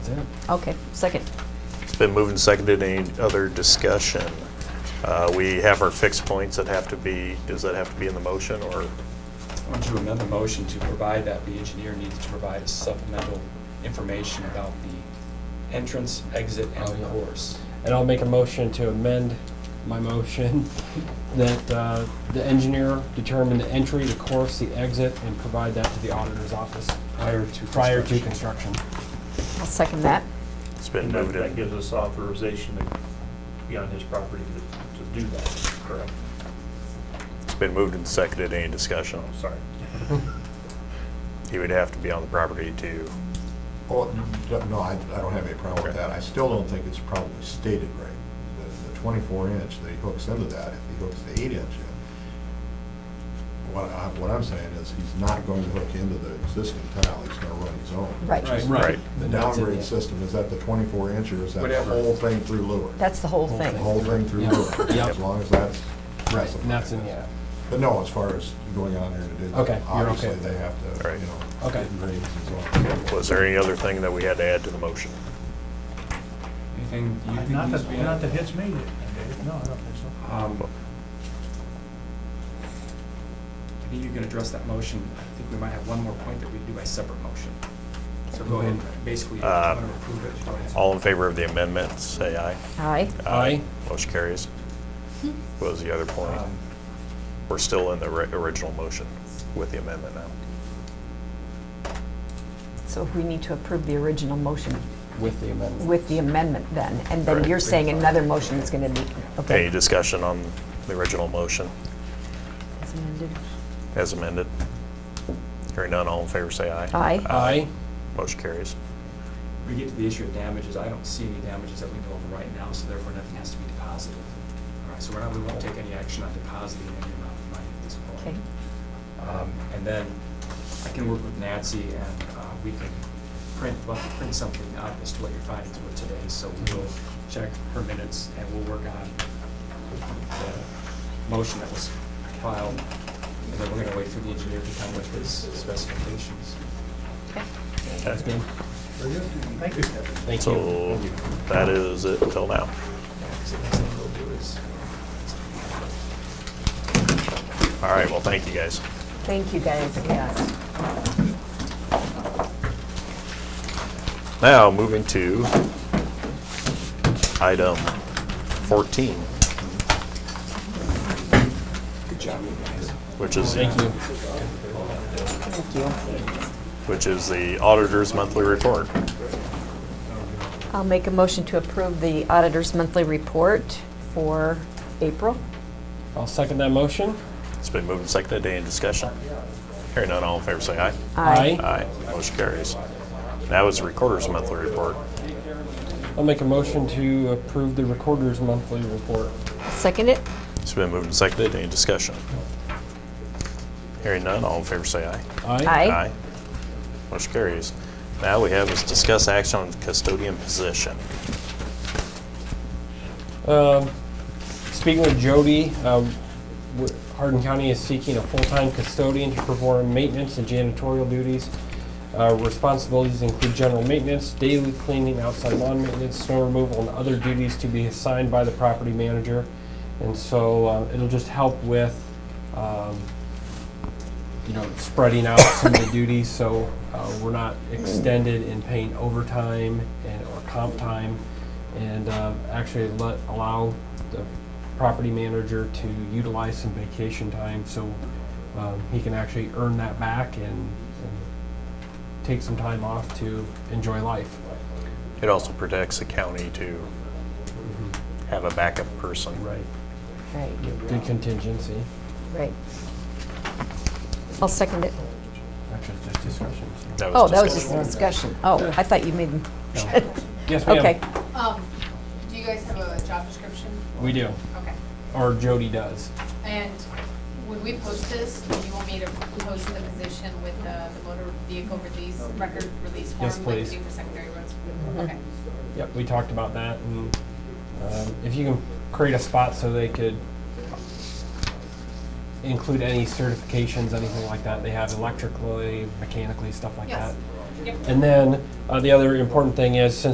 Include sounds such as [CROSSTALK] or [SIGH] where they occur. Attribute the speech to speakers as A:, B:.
A: Okay, second.
B: It's been moved and seconded. Any other discussion? Uh, We have our fixed points that have to be, does that have to be in the motion or?
C: I want to amend the motion to provide that the engineer needs to provide supplemental information about the entrance, exit,
D: Oh,
C: and
D: yeah.
C: course.
D: And I'll make a motion to amend my motion [LAUGHS] that uh, the engineer determine the entry, the course, the exit, and provide that to the auditor's office
C: Prior to
D: prior to
C: construction.
D: construction.
A: I'll second that.
B: It's been
E: That
B: moved
E: that
B: and,
E: gives us authorization to be on his property to to do that, correct?
B: it's been moved and seconded. Any discussion?
E: I'm sorry.
B: He would have to be on the property to,
F: Oh, no, I, I don't have any problem with that. I still don't think it's probably stated right. The- The twenty-four inch that he hooks into that, if he hooks the eight inch in, what I, what I'm saying is he's not going to hook into the existing tile, he's gonna run his own.
A: Right.
B: right.
F: The
D: And that's it,
F: downgrade
D: yeah.
F: system, is that the twenty-four inch or is that the
C: Whatever.
F: whole thing through Lure?
A: That's the whole
F: The
A: thing.
F: whole thing through
D: Yeah.
F: Lure,
D: Yeah.
F: as long as that's
D: Right, and that's in,
F: specified.
D: yeah.
F: But no, as far as going on here to do
D: Okay,
F: that,
D: you're
F: obviously
D: okay.
F: they have to,
B: Right.
F: you know,
D: Okay.
F: get grades and so on.
B: Was there any other thing that we had to add to the motion?
C: Anything you think
E: Not
C: needs to
E: that,
C: be
E: not that
C: added?
E: hits me, Dave. no, I don't think so.
C: Um, I think you can address that motion. I think we might have one more point that we do by separate motion. So go ahead, basically, if you
B: Uh,
C: want to approve it, go ahead.
B: All in favor of the amendment, say aye.
A: Aye.
D: Aye.
B: Motion carries. What was the other point?
C: Um,
B: We're still in the ri- original motion with the amendment now.
A: So we need to approve the original motion
D: With the amendment.
A: with the amendment then, and then
B: Right.
A: you're saying another motion is going to be,
B: Any
A: okay.
B: discussion on the original motion
A: As amended.
B: as amended? Hearing none, all in favor, say aye.
A: Aye.
D: Aye.
B: Motion carries.
C: We get to the issue of damages, I don't see any damages that we know of right now, so therefore nothing has to be deposited. All right, so we're not, we won't take any action on depositing any amount of money at this
A: Okay.
C: point. Um, And then I can work with Nancy and uh, we can print, we'll have to print something up as to what your findings were today. So we'll check her minutes and we'll work on the motion that was filed. And then we're gonna wait for the engineer to come with his specifications.
A: Okay.
D: That's good.
E: Thank you.
D: Thank you.
B: So that is it until now.
C: So the next thing we'll do is
B: All right, well, thank you, guys.
A: Thank you, guys, yes.
B: Now, moving to item 14,
C: Good job, you guys.
B: which is,
D: Thank you.
A: Thank you.
B: which is the auditor's monthly report.
A: I'll make a motion to approve the auditor's monthly report for April.
D: I'll second that motion.
B: It's been moved and seconded. Any discussion? Hearing none, all in favor, say aye. Aye. Motion carries. Now is the recorder's monthly report.
D: I'll make a motion to approve the recorder's monthly report.
A: Second it?
B: It's been moved and seconded. Any discussion? Hearing none, all in favor, say aye.
D: Aye.
B: Motion carries. Now we have is discuss action on custodian position.
D: Um, Speaking with Jody, um, w- Hardin County is seeking a full-time custodian to perform maintenance and janitorial duties. Uh, Responsibilities include general maintenance, daily cleaning, outside lawn maintenance, snow removal, and other duties to be assigned by the property manager. And so uh, it'll just help with, um, you know, spreading out some of the duties, so uh, we're not extended in paying overtime and, or comp time, and uh, actually let, allow the property manager to utilize some vacation time, so um, he can actually earn that back and and take some time off to enjoy life.
B: It also protects the county to have a backup person.
D: Right.
A: Right,
D: Good contingency.
A: right. I'll second it.
D: Actually, it's just discussion. so-
A: Oh, that was
B: discussed.
A: just a discussion. Oh, I thought you made,
D: Yes, ma'am.
A: okay.
G: Um, do you guys have a job description?
D: We do,
G: Okay.
D: or Jody does.
G: And when we post this, do you want me to post the position with the, the motor vehicle release, record release form?
D: Yes, please.
G: Like you do for secondary roads? Okay.
D: Yep, we talked about that, and um, if you can create a spot so they could include any certifications, anything like that, they have electrically, mechanically, stuff like
G: Yes.
D: that.
G: Yep.
D: And then, uh, the other important thing is, since